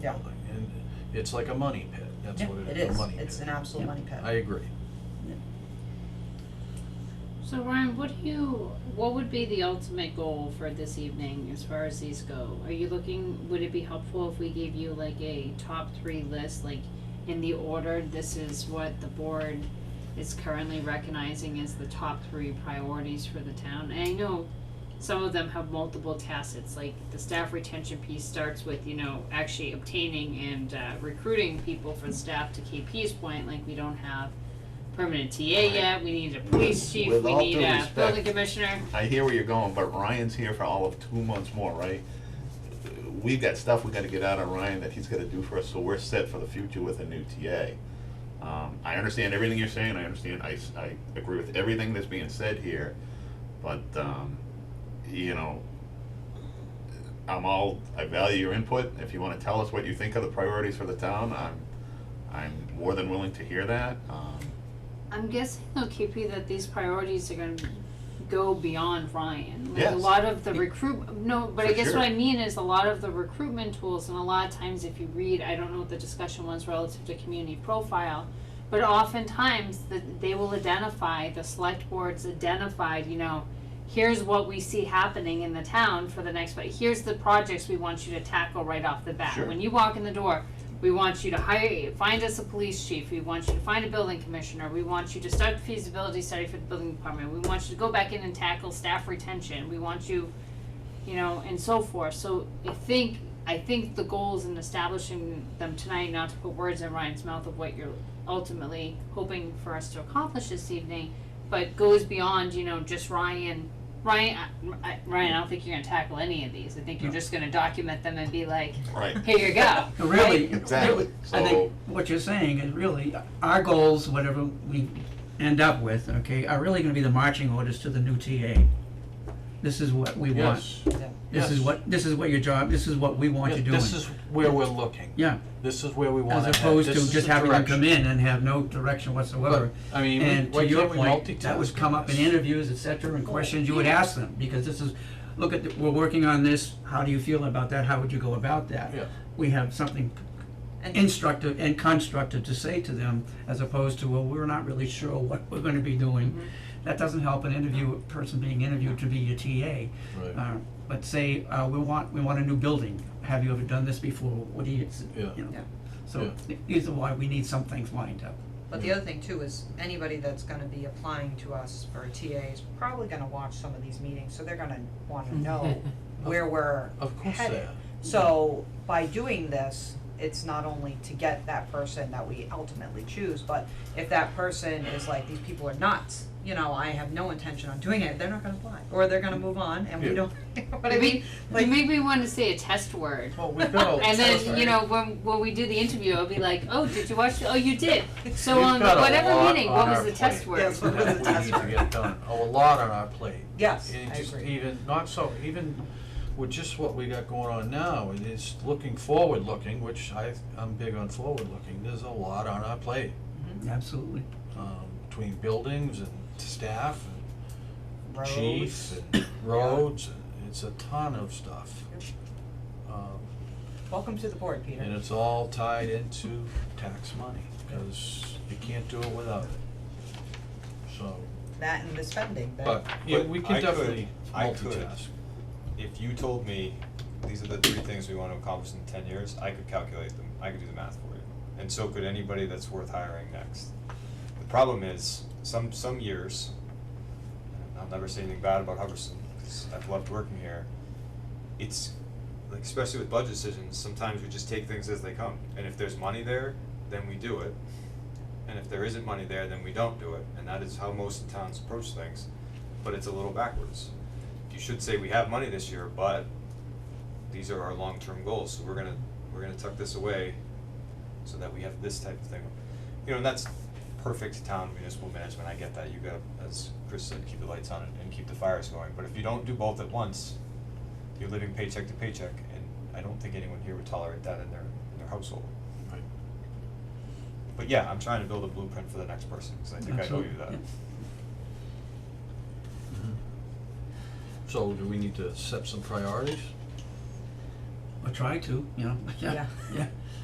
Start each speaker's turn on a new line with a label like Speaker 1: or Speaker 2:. Speaker 1: Yeah.
Speaker 2: building, and it's like a money pit, that's
Speaker 1: Yeah,
Speaker 2: what it
Speaker 1: it
Speaker 2: is, a
Speaker 1: is.
Speaker 2: money pit.
Speaker 1: It's an absolute money pit.
Speaker 2: I agree.
Speaker 3: So Ryan, what do you, what would be the ultimate goal for this evening as far as these go? Are you looking, would it be helpful if we gave you like a top three list, like in the order, this is what the board is currently recognizing as the top three priorities for the town? And I know some of them have multiple tacits, like the staff retention piece starts with, you know, actually obtaining and uh, recruiting people for staff to KP's point, like we don't have permanent TA yet, we need a police chief,
Speaker 4: With
Speaker 3: we
Speaker 4: all
Speaker 3: need
Speaker 4: due
Speaker 3: a
Speaker 4: respect,
Speaker 3: building commissioner.
Speaker 4: I hear where you're going, but Ryan's here for all of two months more, right? We've got stuff we gotta get out of Ryan that he's gotta do for us, so we're set for the future with a new TA. Um, I understand everything you're saying, I understand, I, s- I agree with everything that's being said here, but, um, you know, I'm all, I value your input, if you wanna tell us what you think are the priorities for the town, I'm, I'm more than willing to hear that, um,
Speaker 3: I'm guessing though, KP, that these priorities are gonna go beyond Ryan. Like a
Speaker 4: Yes.
Speaker 3: lot of the recruit, no, but I
Speaker 4: For
Speaker 3: guess what I
Speaker 4: sure.
Speaker 3: mean is a lot of the recruitment tools and a lot of times if you read, I don't know what the discussion was relative to community profile. But oftentimes that they will identify, the select boards identified, you know, here's what we see happening in the town for the next, but here's the projects we want you to tackle right off the bat.
Speaker 4: Sure.
Speaker 3: When you walk in the door, we want you to hire, find us a police chief, we want you to find a building commissioner, we want you to start the feasibility study for the building department, we want you to go back in and tackle staff retention, we want you, you know, and so forth, so I think, I think the goals in establishing them tonight, not to put words in Ryan's mouth of what you're ultimately hoping for us to accomplish this evening, but goes beyond, you know, just Ryan, Ryan, I- I, Ryan, I don't think you're gonna tackle any of these, I think you're just gonna document them and be like,
Speaker 4: right,
Speaker 3: here you go.
Speaker 5: Really,
Speaker 4: Exactly.
Speaker 5: really, I think
Speaker 4: So-
Speaker 5: what you're saying is really, our goals, whatever we end up with, okay, are really gonna be the marching orders to the new TA. This is what we want.
Speaker 2: Yes,
Speaker 5: This is
Speaker 2: yes.
Speaker 5: what, this is what your job, this is what we want you
Speaker 2: Yes,
Speaker 5: doing.
Speaker 2: This is where we're looking,
Speaker 5: Yeah,
Speaker 2: this is where we wanna head,
Speaker 5: as opposed
Speaker 2: this
Speaker 5: to
Speaker 2: is
Speaker 5: just
Speaker 2: the
Speaker 5: having them come
Speaker 2: direction.
Speaker 5: in and have no direction whatsoever.
Speaker 2: But, I mean,
Speaker 5: And
Speaker 2: why
Speaker 5: to your
Speaker 2: can't we
Speaker 5: point, that was
Speaker 2: multitask
Speaker 5: come up in
Speaker 2: this?
Speaker 5: interviews, et cetera, and questions you would ask them, because this is, look at, the- we're working on this, how do you feel about that, how would you go about that?
Speaker 2: Yeah.
Speaker 5: We have something
Speaker 1: And-
Speaker 5: instructive and constructive to say to them, as opposed to, well, we're not really sure what we're gonna be doing.
Speaker 1: Mm-hmm.
Speaker 5: That doesn't help an interview, person being interviewed to be your TA.
Speaker 2: Right.
Speaker 5: Uh, but say, uh, we want, we want a new building, have you ever done this before, what do you, you
Speaker 2: Yeah.
Speaker 5: know?
Speaker 1: Yeah.
Speaker 5: So, these are why we need some things lined up.
Speaker 1: But the other thing too is anybody that's gonna be applying to us for a TA is probably gonna watch some of these meetings, so they're gonna wanna know where we're
Speaker 2: Mm-hmm. Of course they
Speaker 1: headed.
Speaker 2: are.
Speaker 1: So by doing this, it's not only to get that person that we ultimately choose, but if that person is like, these people are nuts, you know, I have no intention on doing it, they're not gonna apply, or they're gonna move on and we
Speaker 2: Yeah.
Speaker 1: don't, what I
Speaker 3: You
Speaker 1: mean?
Speaker 3: You
Speaker 1: Like,
Speaker 3: make me want to say a test word.
Speaker 2: Well, we've got a.
Speaker 3: And then, you know, when, when we do the interview, I'll be like, oh, did you watch, the- oh, you did. So
Speaker 2: We've
Speaker 3: on
Speaker 2: got a
Speaker 3: whatever
Speaker 2: lot
Speaker 3: meeting,
Speaker 2: on
Speaker 3: what was
Speaker 2: our
Speaker 3: the test
Speaker 2: plate.
Speaker 3: word?
Speaker 1: Yes, what was the
Speaker 2: that we
Speaker 1: test
Speaker 2: need to
Speaker 1: word?
Speaker 2: get done, a lot on our plate.
Speaker 1: yes,
Speaker 2: And
Speaker 1: I
Speaker 2: just
Speaker 1: agree.
Speaker 2: even, not so, even with just what we got going on now, and it's looking forward-looking, which I, I'm big on forward-looking, there's a lot on our plate.
Speaker 5: Absolutely.
Speaker 2: um, Between buildings and staff and
Speaker 1: Roads.
Speaker 2: chiefs and roads, and it's a ton of stuff. Um,
Speaker 1: Welcome to the board, Peter.
Speaker 2: And it's all tied into tax money, because you can't do it without it. So,
Speaker 1: That and the spending, that.
Speaker 2: but, yeah,
Speaker 6: But
Speaker 2: we
Speaker 6: I
Speaker 2: can
Speaker 6: could-
Speaker 2: definitely
Speaker 6: I could.
Speaker 2: multitask.
Speaker 6: if you told me these are the three things we want to accomplish in ten years, I could calculate them. I could do the math for you. And so could anybody that's worth hiring next. The problem is, some some years, and I'll never say anything bad about Hubbardson, because I've loved working here, it's like especially with budget decisions, sometimes we just take things as they come. And if there's money there, then we do it. And if there isn't money there, then we don't do it. And that is how most towns approach things. But it's a little backwards you should say we have money this year, but these are our long-term goals, so we're gonna, we're gonna tuck this away so that we have this type of thing. You know, and that's perfect town municipal management, I get that, you gotta, as Chris said, keep the lights on and, and keep the fires going, but if you don't do both at once, you're living paycheck to paycheck, and I don't think anyone here would tolerate that in their, in their household.
Speaker 2: Right.
Speaker 6: But yeah, I'm trying to build a blueprint for the next person, cause I think I owe you
Speaker 5: Absolutely,
Speaker 6: that.
Speaker 5: yeah.
Speaker 2: So do we need to set some priorities?
Speaker 5: Or try to, you know, yeah,
Speaker 1: Yeah.
Speaker 5: yeah.